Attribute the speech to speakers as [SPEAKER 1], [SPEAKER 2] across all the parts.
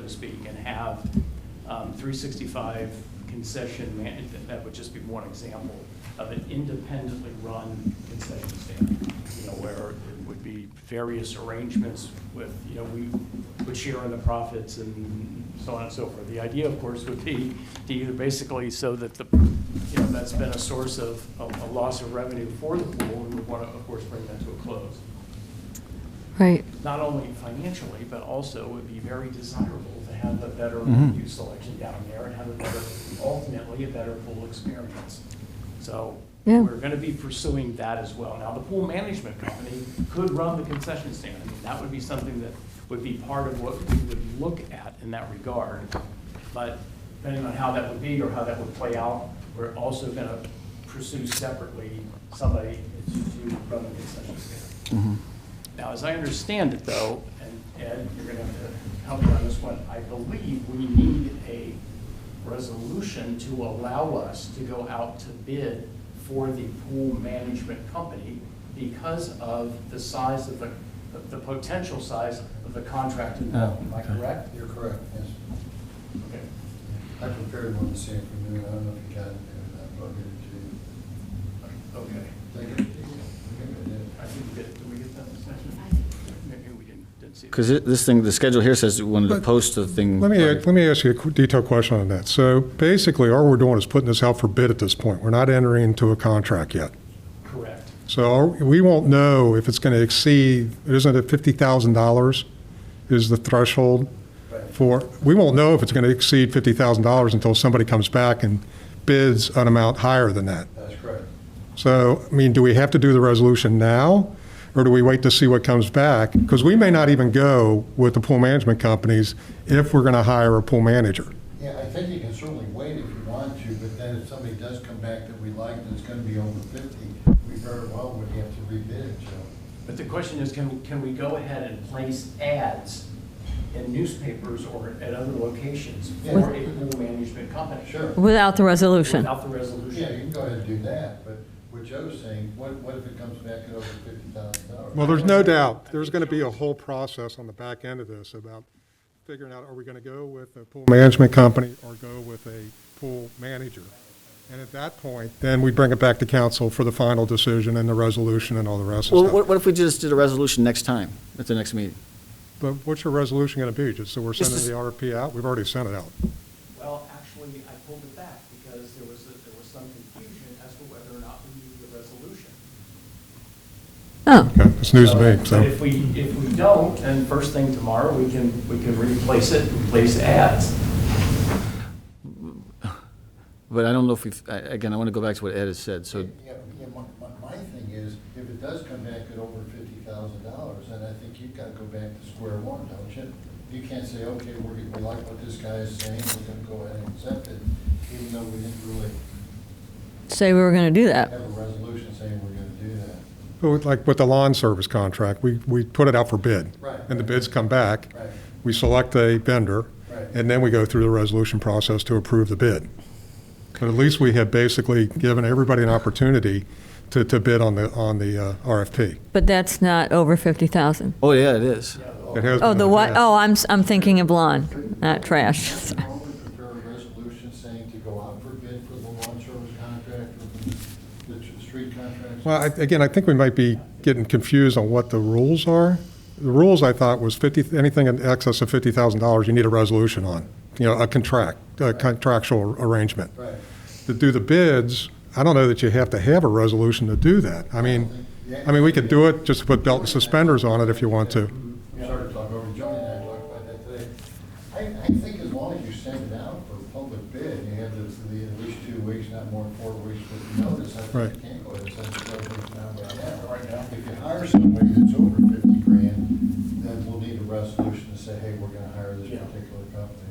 [SPEAKER 1] to speak, and have um, 365 concession man, that would just be one example of an independently run concession stand, you know, where it would be various arrangements with, you know, we would share in the profits and so on and so forth. The idea, of course, would be to either basically so that the, you know, that's been a source of, of a loss of revenue for the pool, and we want to, of course, bring that to a close
[SPEAKER 2] Right.
[SPEAKER 1] not only financially, but also it would be very desirable to have a better
[SPEAKER 3] Mhm.
[SPEAKER 1] youth selection down there and have a better, ultimately, a better pool experience. So
[SPEAKER 2] Yeah.
[SPEAKER 1] we're going to be pursuing that as well. Now, the pool management company could run the concession stand. I mean, that would be something that would be part of what we would look at in that regard. But depending on how that would be or how that would play out, we're also going to pursue separately somebody to to run the concession stand. Now, as I understand it, though, and Ed, you're going to have to help me on this one, I believe we need a resolution to allow us to go out to bid for the pool management company because of the size of the, the potential size of the contract involved. Am I
[SPEAKER 3] Oh, okay.
[SPEAKER 1] correct?
[SPEAKER 4] You're correct, yes.
[SPEAKER 1] Okay.
[SPEAKER 4] I prepared one this afternoon, I don't know if you got it, there, but I'll
[SPEAKER 1] Okay.
[SPEAKER 4] get it to you. Take it. Take it.
[SPEAKER 1] I think that, did we get that discussion? Maybe we didn't, didn't see that.
[SPEAKER 5] Because this thing, the schedule here says we wanted to
[SPEAKER 6] But-
[SPEAKER 5] post the thing.
[SPEAKER 6] Let me,
[SPEAKER 5] by-
[SPEAKER 6] let me ask you a qu- detailed question on that. So basically, all we're doing is putting this out for bid at this point. We're not entering into a contract yet.
[SPEAKER 1] Correct.
[SPEAKER 6] So are- we won't know if it's going to exceed, isn't it $50,000 is the threshold
[SPEAKER 4] Right.
[SPEAKER 6] for, we won't know if it's going to exceed $50,000 until somebody comes back and bids an amount higher than that.
[SPEAKER 4] That's correct.
[SPEAKER 6] So, I mean, do we have to do the resolution now, or do we wait to see what comes back? Because we may not even go with the pool management companies if we're going to hire a pool manager.
[SPEAKER 4] Yeah, I think you can certainly wait if you want to, but then if somebody does come back that we like, and it's gonna be over fifty, we very well would have to rebid it, so.
[SPEAKER 1] But the question is, can, can we go ahead and place ads in newspapers or at other locations for a pool management company?
[SPEAKER 4] Sure,
[SPEAKER 2] Without the resolution.
[SPEAKER 1] Without the
[SPEAKER 4] yeah, you
[SPEAKER 1] resolution.
[SPEAKER 4] can go ahead and do that, but what Joe's saying, what, what if it comes back at over fifty thousand dollars?
[SPEAKER 6] Well, there's no doubt, there's going to be a whole process on the back end of this about figuring out, are we going to go with a pool management company or go with a pool manager? And at that point, then we bring it back to council for the final decision and the resolution and all the rest
[SPEAKER 5] Well,
[SPEAKER 6] of
[SPEAKER 5] what
[SPEAKER 6] stuff.
[SPEAKER 5] what if we just did a resolution next time, at the next meeting?
[SPEAKER 6] But what's your resolution going to be? Just so we're
[SPEAKER 5] This
[SPEAKER 6] sending
[SPEAKER 5] is-
[SPEAKER 6] the RFP out? We've already sent it out.
[SPEAKER 1] Well, actually, I pulled it back because there was, a- there was some confusion as to whether or not we needed the resolution.
[SPEAKER 2] Oh,
[SPEAKER 6] Okay, it's news to me, so.
[SPEAKER 1] But if we, if we don't, then first thing tomorrow, we can, we can replace it and place ads.
[SPEAKER 5] But I don't know if we've, I- again, I want to go back to what Ed has said, so,
[SPEAKER 4] Yeah, yeah, my, my- my thing is, if it does come back at over fifty thousand dollars, then I think you've got to go back to square one, don't you? You can't say, okay, we're, we like what this guy is saying, we're gonna go ahead and accept it, even though we didn't really
[SPEAKER 2] say we were going to do
[SPEAKER 4] have
[SPEAKER 2] that.
[SPEAKER 4] a resolution saying we're gonna do that.
[SPEAKER 6] But with- Like with the lawn service contract, we, we put it out for bid.
[SPEAKER 4] Right.
[SPEAKER 6] And the bids come back.
[SPEAKER 4] Right.
[SPEAKER 6] We select a vendor.
[SPEAKER 4] Right.
[SPEAKER 6] And then we go through the resolution process to approve the bid. But at least we have basically given everybody an opportunity to, to bid on the, on the uh, RFP.
[SPEAKER 2] But that's not over 50,000.
[SPEAKER 5] oh, yeah, it is.
[SPEAKER 6] It has
[SPEAKER 2] Oh,
[SPEAKER 6] been
[SPEAKER 2] the
[SPEAKER 6] in
[SPEAKER 2] what?
[SPEAKER 6] past.
[SPEAKER 2] Oh, I'm, s- I'm thinking of lawn, not trash.
[SPEAKER 4] Normally prepare a resolution saying to go out for bid for the lawn service contract or the, the street contracts.
[SPEAKER 6] Well, I- again, I think we might be getting confused on what the rules are. The rules, I thought, was 50, anything in excess of $50,000, you need a resolution on, you know, a contract, a contractual arrangement.
[SPEAKER 4] Right.
[SPEAKER 6] to do the bids, I don't know that you have to have a resolution to do that. I mean, I mean, we could do it, just put belt and suspenders on it if you want to.
[SPEAKER 4] We started talking over, Johnny and I talked about that today. I, I think as long as you send it out for public bid, you have the, the at least two weeks, not more than four weeks with notice. I think
[SPEAKER 6] Right.
[SPEAKER 4] you can't go ahead and send the resolution out right now. Right now. If you hire somebody that's over fifty grand, then we'll need a resolution to say, hey, we're gonna hire this
[SPEAKER 1] Yeah.
[SPEAKER 4] particular company.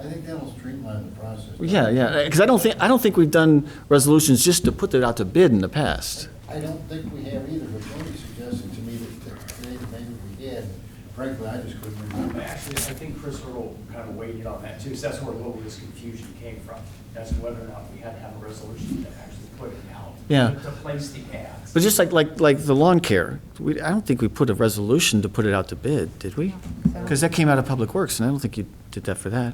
[SPEAKER 4] I think that'll streamline the process.
[SPEAKER 5] Well, Yeah, yeah, because I don't think, I don't think we've done resolutions just to put it out to bid in the past.
[SPEAKER 4] I don't think we have either, but Jody suggested to me that that today that maybe we had. Frankly, I just couldn't remember.
[SPEAKER 1] Um, Actually, I think Chris Earl kind of weighed in on that too, so that's where a little of this confusion came from, as to whether or not we had to have a resolution to actually put it out.
[SPEAKER 5] Yeah.
[SPEAKER 1] To place the ads.
[SPEAKER 5] But just like, like, like the lawn care, we, I don't think we put a resolution to put it out to bid, did we? Because that came out of Public Works, and I don't think you, did that for that.